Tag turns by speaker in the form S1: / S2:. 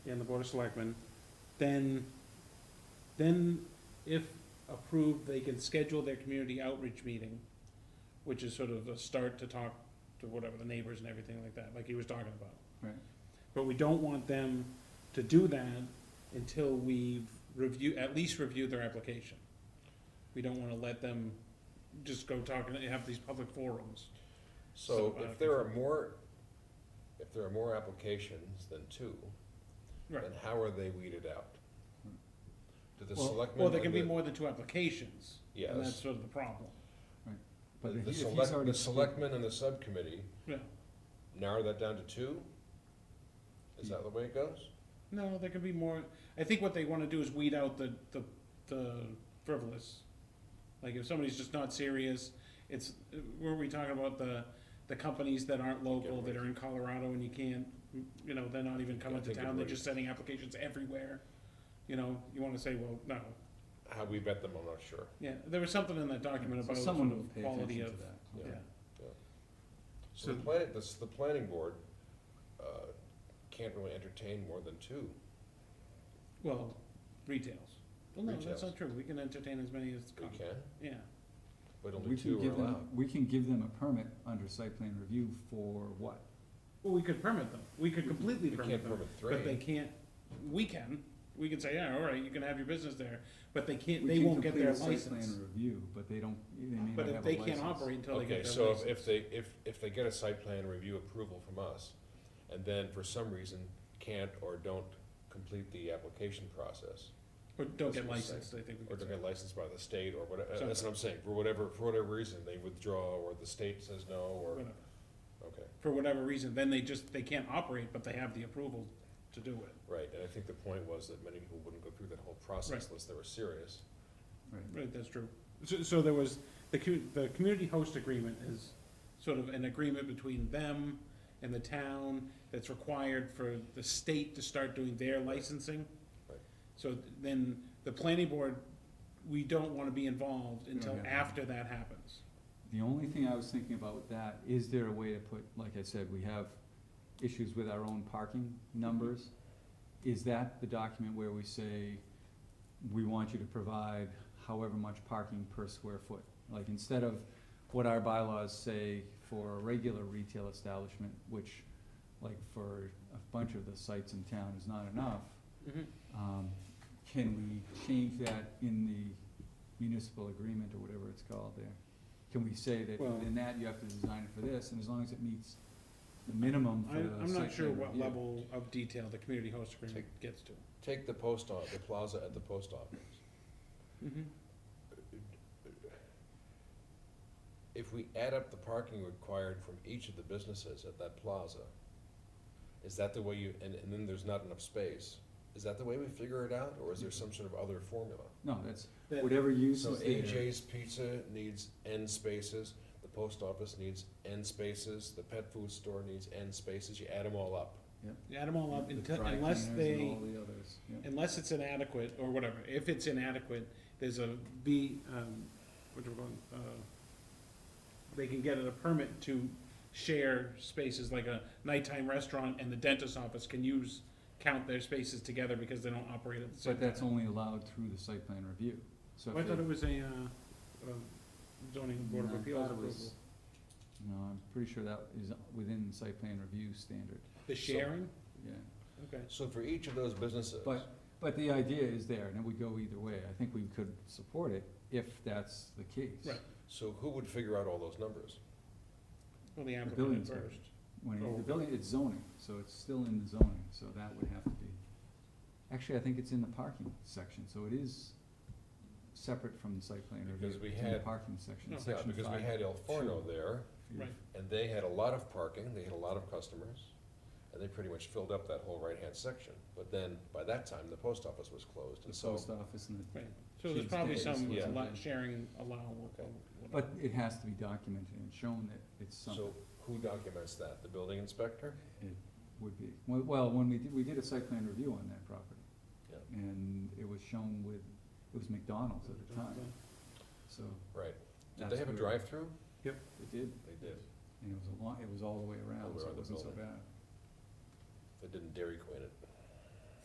S1: and the Board of Selectmen, then, then if approved, they can schedule their community outreach meeting, which is sort of a start to talk to whatever, the neighbors and everything like that, like he was talking about.
S2: Right.
S1: But we don't want them to do that until we've review, at least reviewed their application. We don't wanna let them just go talk and have these public forums.
S3: So
S1: So, uh,
S3: if there are more, if there are more applications than two, then
S1: Right.
S3: how are they weeded out? Do the
S2: Well-
S3: selectmen?
S1: Well, there can
S3: and
S1: be
S3: the-
S1: more than two applications, and that's
S3: Yes,
S1: sort of the problem,
S2: But if
S3: the
S2: he- if he's
S3: select,
S2: already
S3: the selectmen and the subcommittee
S1: yeah.
S3: narrow that down to two? Is that the way it goes?
S1: No, there could be more, I think what they wanna do is weed out the, the, the frivolous. Like if somebody's just not serious, it's, were we talking about the, the companies that aren't local, that are in Colorado and you can't, you know, they're not even coming to
S3: Gotta take a
S1: town, they're
S3: break.
S1: just sending applications everywhere. You know, you wanna say, well, no,
S3: How we vet them, I'm not sure.
S1: yeah, there was something in that document
S2: So
S1: about sort
S2: someone will
S1: of
S2: pay
S1: quality
S2: attention
S1: of,
S2: to that.
S1: yeah.
S3: Yeah. So
S1: So-
S3: the planning, the, s- the planning board, uh, can't really entertain more than two.
S1: Well, retails. Well, no, that's
S3: Retails.
S1: not true. We can entertain as many as
S3: We
S1: come.
S3: can,
S1: Yeah,
S3: but
S2: We
S3: only
S2: can
S3: two are
S2: give them,
S3: allowed.
S2: we can give them a permit under site plan review for what?
S1: well, we could permit them. We could completely
S3: We can't
S1: permit them,
S3: permit
S1: but they
S3: three.
S1: can't, we can. We can say, yeah, all right, you can have your business there, but they can't,
S2: We
S1: they
S2: can
S1: won't get
S2: complete
S1: their
S2: a Site
S1: license.
S2: plan review, but they don't, they may not have a
S1: But
S2: license.
S1: if they can't operate until they
S3: Okay,
S1: get their
S3: so if-
S1: license.
S3: if they, if, if they get a site plan review approval from us, and then for some reason can't or don't complete the application process,
S1: Or don't get
S3: That's what I'm saying.
S1: licensed, I think we
S3: or
S1: could
S3: don't
S1: say.
S3: get licensed by the state or whatever, that's what I'm saying, for whatever, for whatever reason, they withdraw, or the state says no, or,
S1: Whatever.
S3: okay,
S1: For whatever reason, then they just, they can't operate, but they have the approval to do it.
S3: right, and I think the point was that many people wouldn't go through that whole process
S1: Right.
S3: unless they were serious.
S2: Right.
S1: Right, that's true. So, so there was, the cu- the community host agreement is sort of an agreement between them and the town that's required for the state to start doing their licensing.
S3: Right.
S1: So then the planning board, we don't wanna be involved
S2: don't
S1: until
S2: get involved.
S1: after that happens.
S2: The only thing I was thinking about with that, is there a way to put, like I said, we have issues with our own parking numbers. Is that the document where we say, we want you to provide however much parking per square foot? Like, instead of what our bylaws say for a regular retail establishment, which, like, for a bunch of the sites in town is not enough,
S3: Mm-hmm.
S2: um, can we change that in the municipal agreement or whatever it's called there? Can we say that
S1: Well-
S2: within that you have to design it for this, and as long as it meets the minimum
S1: I,
S2: for the site
S1: I'm not sure
S2: plan
S1: what
S2: review?
S1: level of detail the community host agreement gets to.
S3: Take the post off, the plaza at the post office. Mm-hmm. If we add up the parking required from each of the businesses at that plaza, is that the way you, and, and then there's not enough space, is that the way we figure it out, or is there some sort of other formula?
S2: No, that's
S1: That-
S2: whatever use
S3: So
S2: is there,
S3: AJ's Pizza needs N spaces, the post office needs N spaces, the pet food store needs N spaces, you add them all up.
S1: You Add them all up
S2: the
S1: until,
S2: dry
S1: unless
S2: cleaners and
S1: they,
S2: all the others, yeah.
S1: unless it's inadequate or whatever, if it's inadequate, there's a B, um, what we're going, uh, they can get a permit to share spaces like a nighttime restaurant and the dentist office can use, count their spaces together because they don't operate at the same
S2: But
S1: time.
S2: that's only allowed through the site plan review, so
S1: Oh, I
S2: if they.
S1: thought it was a, uh, uh, zoning board of
S2: No, I
S1: appeals
S2: thought it was-
S1: approval.
S2: No, I'm pretty sure that is within the site plan review standard,
S1: The sharing,
S2: yeah.
S1: okay.
S3: So for each of those businesses.
S2: But, but the idea is there, and it would go either way. I think we could support it if that's the case.
S1: Right.
S3: So who would figure out all those numbers?
S1: Well, the applicant
S2: building's
S1: first.
S2: When it-
S1: Oh.
S2: the building, it's zoning, so it's still in the zoning, so that would have to be. Actually, I think it's in the parking section, so it is separate from the site plan review.
S3: Because we
S2: It's in the
S3: had-
S2: Parking section,
S1: No.
S3: Yeah,
S2: section five.
S3: because we had El Forno there,
S2: You've-
S1: Right.
S3: and they had a lot of parking, they had a lot of customers, and they pretty much filled up that whole right-hand section. But then, by that time, the post office was closed,
S2: The
S3: and so,
S2: post office and the,
S1: Right, so there's
S2: She's
S1: probably
S2: days,
S1: some
S3: yeah.
S1: lot sharing allowable.
S3: Okay.
S2: but it has to be documented and shown that it's something.
S3: so who documents that? The building inspector?
S2: It would be, well- well, when we did, we did a site plan review on that property.
S3: Yeah.
S2: And it was shown with, it was McDonald's at the time, so
S3: Right. Did
S2: That's
S3: they have a
S2: where-
S3: drive-through?
S2: it did,
S3: They did.
S2: and it was a long, it was all the way around,
S3: All
S2: so
S3: around
S2: it
S3: the
S2: wasn't so
S3: building.
S2: bad.
S3: They didn't Dairy Queen it.